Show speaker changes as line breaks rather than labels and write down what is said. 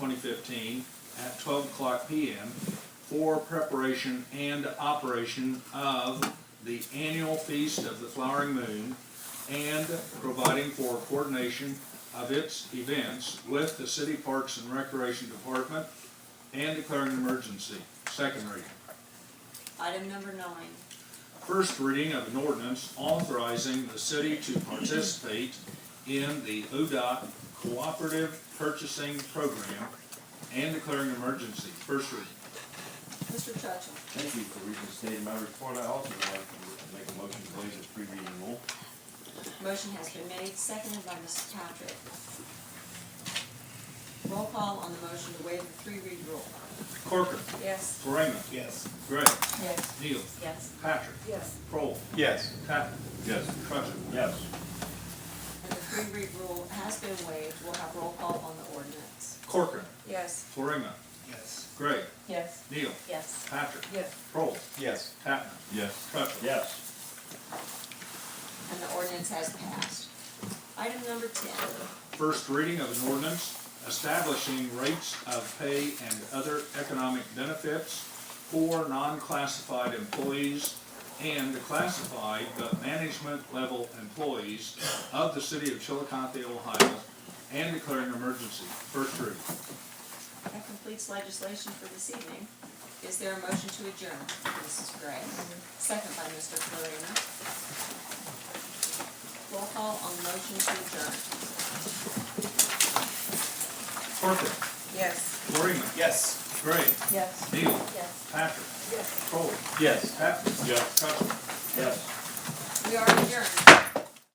fifteen at twelve o'clock PM for preparation and operation of the annual feast of the flowering moon and providing for coordination of its events with the city parks and recreation department and declaring an emergency. Second reading.
Item number nine,
First reading of an ordinance authorizing the city to participate in the ODOT Cooperative Purchasing Program and declaring an emergency. First reading.
Mr. Churchill.
Thank you for reading the state of my report. I also would like to make a motion to waive the three reading rule.
Motion has been made, seconded by Mrs. Patrick. Roll call on the motion to waive the three read rule.
Corcoran.
Yes.
Florina.
Yes.
Gray.
Yes.
Neal.
Yes.
Patrick.
Yes.
Prohl.
Yes.
Patton.
Yes.
Trutchen.
Yes.
And the three read rule has been waived, we'll have roll call on the ordinance.
Corcoran.
Yes.
Florina.
Yes.
Gray.
Yes.
Neal.
Yes.
Patrick.
Yes.
Prohl.
Yes.
Patton.
Yes.
Trutchen.
Yes.
And the ordinance has passed. Item number ten,
First reading of an ordinance establishing rates of pay and other economic benefits for non-classified employees and classified but management level employees of the city of Chillicothe, Ohio, and declaring an emergency. First reading.
that completes legislation for this evening. Is there a motion to adjourn? Mrs. Gray, second by Mr. Florina. Roll call on the motion to adjourn.
Corcoran.
Yes.
Florina.
Yes.
Gray.
Yes.
Neal.
Yes.
Patrick.
Yes.
Prole.
Yes.
Patton.
Yes.
Trutchen.
Yes.
We are adjourned.